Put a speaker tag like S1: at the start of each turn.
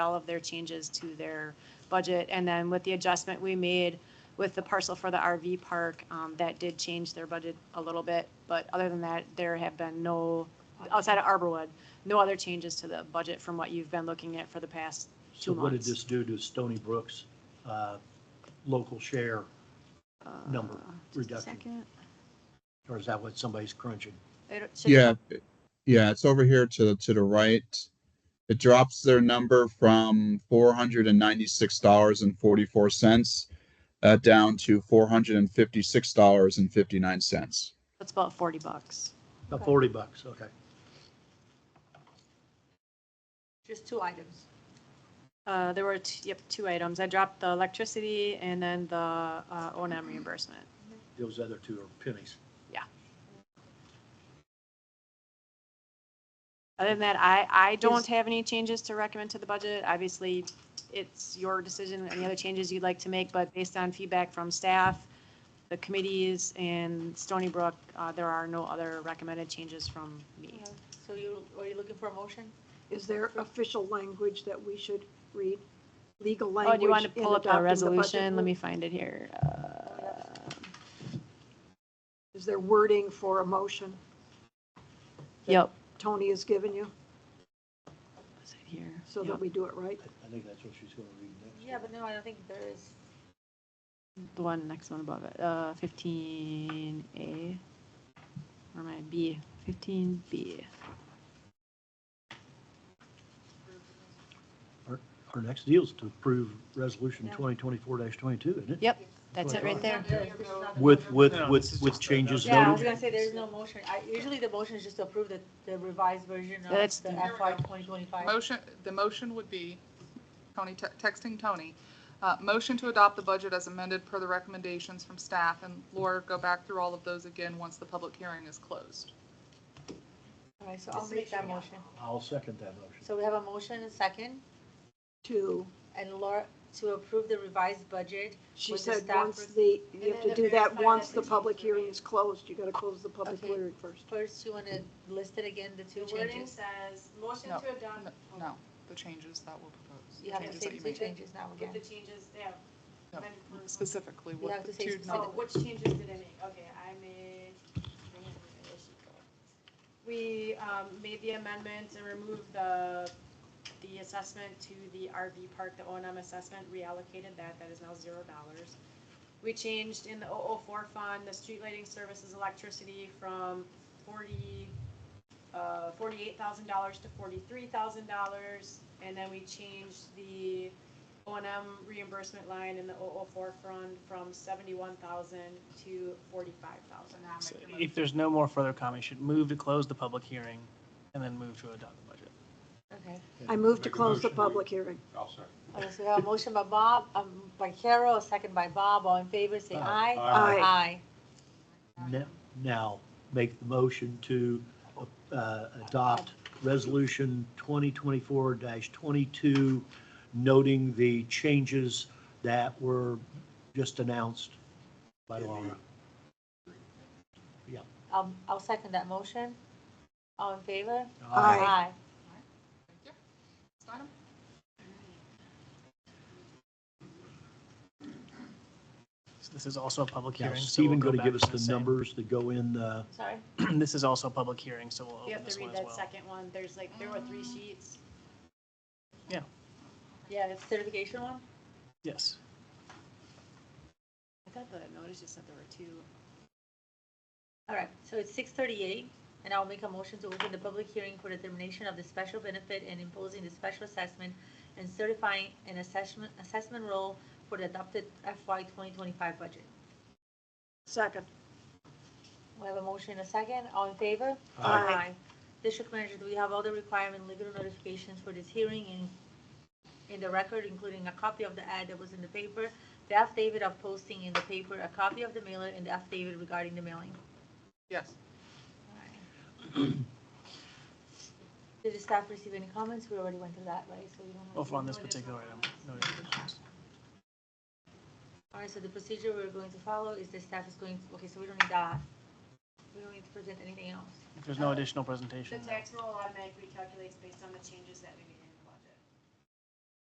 S1: all of their changes to their budget. And then with the adjustment we made with the parcel for the RV park, um, that did change their budget a little bit. But other than that, there have been no, outside of Arborwood, no other changes to the budget from what you've been looking at for the past
S2: So
S1: two
S2: what did
S1: months.
S2: this do to Stony Brook's uh, local share, number
S1: Uh, just a
S2: reduction.
S1: second.
S2: or is that what somebody's crunching?
S1: It should-
S3: Yeah, it- yeah, it's over here to the to the right. It drops their number from four hundred and ninety-six dollars and forty-four cents uh, down to four hundred and fifty-six dollars and fifty-nine cents.
S1: That's about forty bucks.
S2: About
S4: Okay.
S2: forty bucks, okay.
S4: Just two items.
S1: Uh, there were, t- yep, two items. I dropped the electricity and then the, uh, O and M reimbursement.
S2: Those other two are pennies.
S1: Other than that, I, I don't
S4: Is-
S1: have any changes to recommend to the budget. Obviously, it's your decision, any other changes you'd like to make, but based on feedback from staff, the committees, and Stony Brook, uh, there are no other recommended changes from me.
S4: So you, are you looking for a motion?
S5: Is there official language that we should read? Legal
S1: Oh,
S5: language?
S1: do you want to
S5: in
S1: pull up the
S5: adopting budget? Oh,
S1: resolution? Let me find it here. Uh,
S5: Is there wording for a motion
S1: Yep.
S5: Tony has given you
S1: Is it here?
S5: so
S1: Yep.
S5: that we do it right?
S2: I- I think that's what she's gonna read next.
S4: Yeah, but no, I don't think there is.
S1: The one next one above it, uh, fifteen A, or my B, fifteen B.
S2: Our next deal is to approve resolution
S4: Yeah.
S2: twenty twenty-four twenty-two, isn't it?
S1: Yep, that's it right there.
S2: With, with,
S6: No, this
S2: with,
S6: is
S2: with
S6: just a-
S2: changes
S4: Yeah, I was
S2: noted?
S4: gonna say, there's no motion. I, usually the motion is just to approve the, the revised version of
S1: That's-
S4: the FY 2025.
S7: Motion, the motion would be, Tony, te- texting Tony, uh, motion to adopt the budget as amended per the recommendations from staff, and Laura, go back through all of those again once the public hearing is closed.
S4: All right, so I'll make that motion.
S2: I'll second that motion.
S4: So we have a motion and a second,
S5: To,
S4: and Laura, to approve the revised budget.
S5: she
S4: With the
S5: said,
S4: staff
S5: once
S4: pres-
S5: the, you have
S1: then
S5: to
S1: the
S5: do that
S1: verified
S5: once the
S1: resolution
S5: public
S1: is
S5: hearing
S1: read.
S5: is closed. You got to close the public
S4: Okay.
S5: hearing first.
S4: First, you want to list it again, the two
S1: The wording
S4: changes?
S1: says, motion
S7: No,
S1: to adopt
S7: no, No, the changes that were proposed.
S4: You have to
S7: changes
S4: say
S7: that you
S4: two
S7: made.
S4: changes now
S1: with the
S4: again.
S1: changes, yeah.
S7: No,
S1: amended for-
S7: Specifically,
S4: You have
S7: what the
S4: to say
S7: two
S1: Oh,
S4: specific.
S1: which
S7: numbers.
S1: changes did I make? Okay, I made. We um, made the amendment and removed the, the assessment to the RV park, the O and M assessment, reallocated that, that is now zero dollars. We changed in the 004 fund, the street lighting services electricity from forty, uh, forty-eight thousand dollars to forty-three thousand dollars. And then we changed the O and M reimbursement line in the 004 fund from seventy-one thousand to forty-five thousand.
S6: So If there's no more further comment, you should move to close the public hearing and then move to adopt the budget.
S4: Okay.
S5: I move to close the public hearing.
S4: All right, so we have a motion by Bob, um, by Carol, a second by Bob. All in favor, say aye.
S5: Aye.
S4: Aye.
S2: Ne- Now, make the motion to uh, adopt resolution twenty twenty-four twenty-two, noting the changes that were just announced by Laura.
S4: I'll, I'll second that motion. All in favor?
S5: Aye.
S7: Steinem?
S6: So This is also a public
S2: Now,
S6: hearing. so
S2: Stephen
S6: we'll
S2: going to
S6: back
S2: give us the
S6: same.
S2: numbers that go in the,
S4: Sorry.
S6: This is also a public hearing, so we'll
S1: You
S6: open
S1: have
S6: this
S1: to
S6: one
S1: read
S6: as
S1: that
S6: well.
S1: second one, there's like, there were three sheets.
S4: Yeah, the certification one?
S6: Yes.
S1: I thought the notice just said there were two.
S4: All right, so it's six thirty-eight, and I'll make a motion to open the public hearing for determination of the special benefit and imposing the special assessment and certifying an assessment, assessment role for the adopted FY twenty twenty-five budget.
S5: Second.
S4: We have a motion and a second. All in favor?
S5: Aye.
S4: District manager, do we have all the requirement legal notifications for this hearing in, in the record, including a copy of the ad that was in the paper, the affidavit of posting in the paper, a copy of the mailer, and the affidavit regarding the mailing?
S7: Yes.
S4: Did the staff receive any comments? We already went through that, right? So we don't.
S6: Well, for on this particular item, no additions.
S4: All right, so the procedure we're going to follow is the staff is going, okay, so we don't need that. We don't need to present anything else.
S6: If there's no additional presentation,
S1: The tax roll automatically calculates based on the changes that we made.